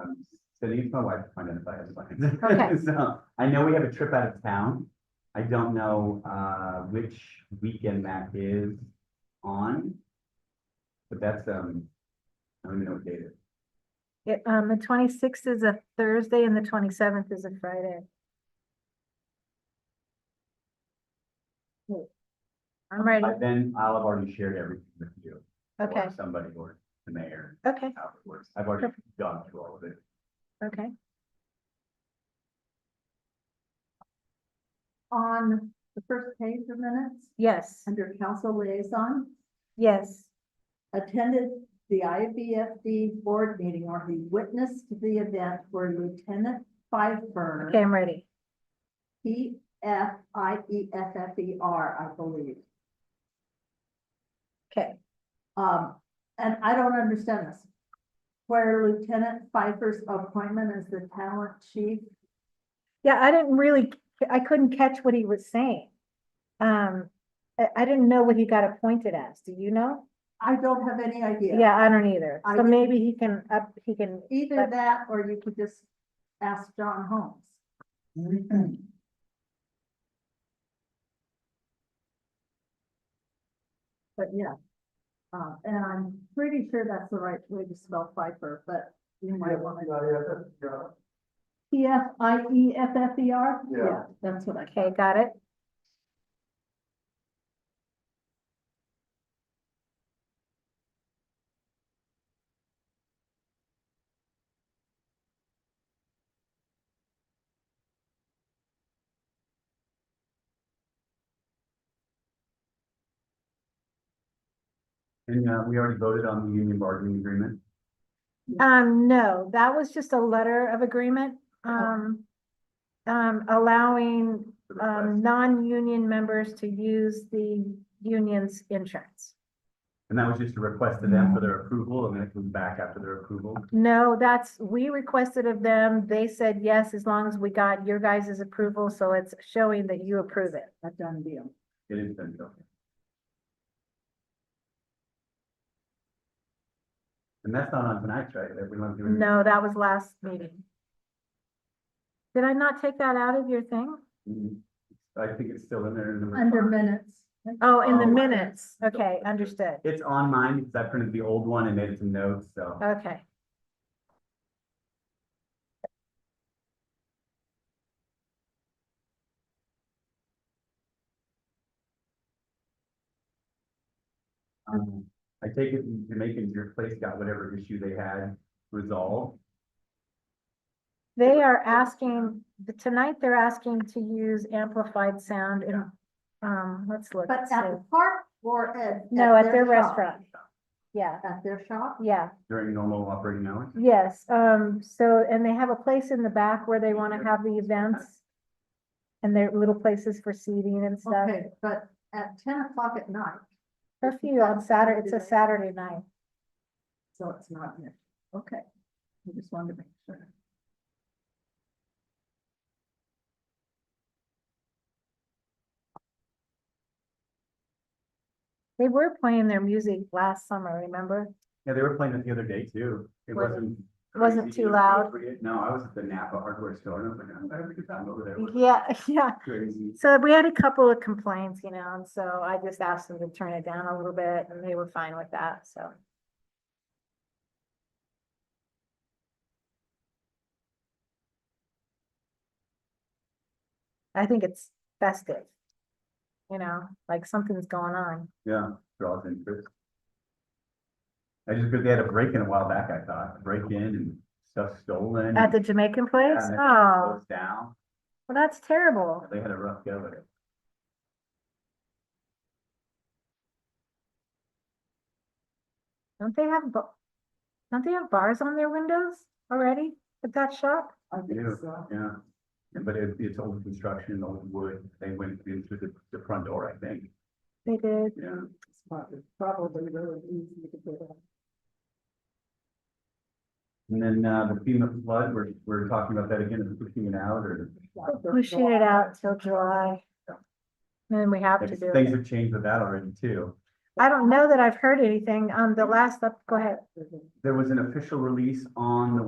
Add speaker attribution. Speaker 1: Um, So you can my wife to find out if I have
Speaker 2: Okay.
Speaker 1: plans. So I know we have a trip out of town. I don't know uh which weekend that is on. But that's um, I don't even know what date it is.
Speaker 2: It, um, the twenty-sixth is a Thursday and the twenty-seventh is a Friday. Wait. I'm ready,
Speaker 1: But Then I'll have already shared everything with you. or
Speaker 2: okay,
Speaker 1: Somebody or the mayor,
Speaker 2: okay,
Speaker 1: how it works. I've already gone through all of it.
Speaker 2: okay.
Speaker 3: on the first page of minutes,
Speaker 2: Yes,
Speaker 3: under council liaison,
Speaker 2: yes,
Speaker 3: attended the IBFD board meeting or he witnessed the event where Lieutenant Pfeiffer,
Speaker 2: okay, I'm ready.
Speaker 3: P F I E F F E R, I believe.
Speaker 2: Okay,
Speaker 3: Um, and I don't understand this. Where Lieutenant Pfeiffer's appointment as the talent chief,
Speaker 2: yeah, I didn't really, I couldn't catch what he was saying. Um, I, I didn't know what he got appointed as, do you know?
Speaker 3: I don't have any idea.
Speaker 2: Yeah, I don't either,
Speaker 3: I
Speaker 2: so
Speaker 3: didn't-
Speaker 2: maybe he can up, he can,
Speaker 3: Either
Speaker 2: But-
Speaker 3: that or you could just ask John Holmes. But yeah. Uh, and I'm pretty sure that's the right way to spell Pfeiffer, but you might want to. P F I E F F E R?
Speaker 1: Yeah.
Speaker 3: That's what I.
Speaker 2: okay, got it?
Speaker 1: And uh, we already voted on the union bargaining agreement.
Speaker 2: Um, no, that was just a letter of agreement,
Speaker 1: Oh.
Speaker 2: um, um, allowing,
Speaker 1: the
Speaker 2: um,
Speaker 1: request.
Speaker 2: non-union members to use the union's insurance.
Speaker 1: And that was just a request to them for their approval and then it comes back after their approval.
Speaker 2: No, that's, we requested of them, they said yes, as long as we got your guys' approval, so it's showing that you approve it.
Speaker 3: A done deal.
Speaker 1: It is done. okay. And that's not on tonight's, right? Everyone's doing.
Speaker 2: No, that was last meeting. Did I not take that out of your thing?
Speaker 1: Mm, I think it's still in there. in the
Speaker 3: Under
Speaker 1: report.
Speaker 3: minutes.
Speaker 2: Oh, in the
Speaker 1: Oh.
Speaker 2: minutes, okay, understood,
Speaker 1: It's on mine because I printed the old one and made some notes, so.
Speaker 2: okay.
Speaker 1: Um, I take it Jamaican, your place got whatever issue they had resolved.
Speaker 2: They are asking, tonight they're asking to use amplified sound in, um, let's look.
Speaker 3: But
Speaker 2: let's
Speaker 3: at
Speaker 2: see.
Speaker 3: the park or at.
Speaker 2: No, at their
Speaker 3: shop?
Speaker 2: restaurant. Yeah,
Speaker 3: At their shop?
Speaker 2: yeah,
Speaker 1: During normal operating hours.
Speaker 2: yes, um, so, and they have a place in the back where they wanna have the events. And their little places for seating and stuff.
Speaker 3: Okay, but at ten o'clock at night,
Speaker 2: Curfew on Saturday, it's a Saturday night.
Speaker 3: so it's not here. Okay, I just wanted to make sure.
Speaker 2: They were playing their music last summer, remember?
Speaker 1: Yeah, they were playing it the other day too. It wasn't.
Speaker 2: Wasn't
Speaker 1: crazy,
Speaker 2: too
Speaker 1: it was
Speaker 2: loud?
Speaker 1: appropriate. No, I was at the Napa hardware store and I was like, I'm having a good time over there. It was
Speaker 2: Yeah, yeah.
Speaker 1: Crazy.
Speaker 2: So we had a couple of complaints, you know, and so I just asked them to turn it down a little bit and they were fine with that, so. I think it's festive. You know, like something's going on.
Speaker 1: Yeah, draws interest. I just, because they had a break-in a while back, I thought, break-in and stuff stolen.
Speaker 2: At the Jamaican place?
Speaker 1: Mm-hmm. Yeah,
Speaker 2: Oh,
Speaker 1: and
Speaker 2: well,
Speaker 1: Closed down.
Speaker 2: that's terrible.
Speaker 1: They had a rough go at it.
Speaker 2: Don't they have, ba- don't they have bars on their windows already at that shop?
Speaker 3: I think
Speaker 1: Yeah.
Speaker 3: so.
Speaker 1: Yeah, Yeah, but it, it's old construction, old wood, they went in through the, the front door, I think,
Speaker 2: They did.
Speaker 1: yeah.
Speaker 3: It's probably, probably really easy to get on.
Speaker 1: And then, uh, the FEMA flood, we're, we're talking about that again, is pushing it out, or
Speaker 2: Pushing it out till July.
Speaker 1: Yeah.
Speaker 2: Then we have to do
Speaker 1: things
Speaker 2: it.
Speaker 1: have changed with that already too.
Speaker 2: I don't know that I've heard anything. Um, the last up, go ahead.
Speaker 1: There was an official release on the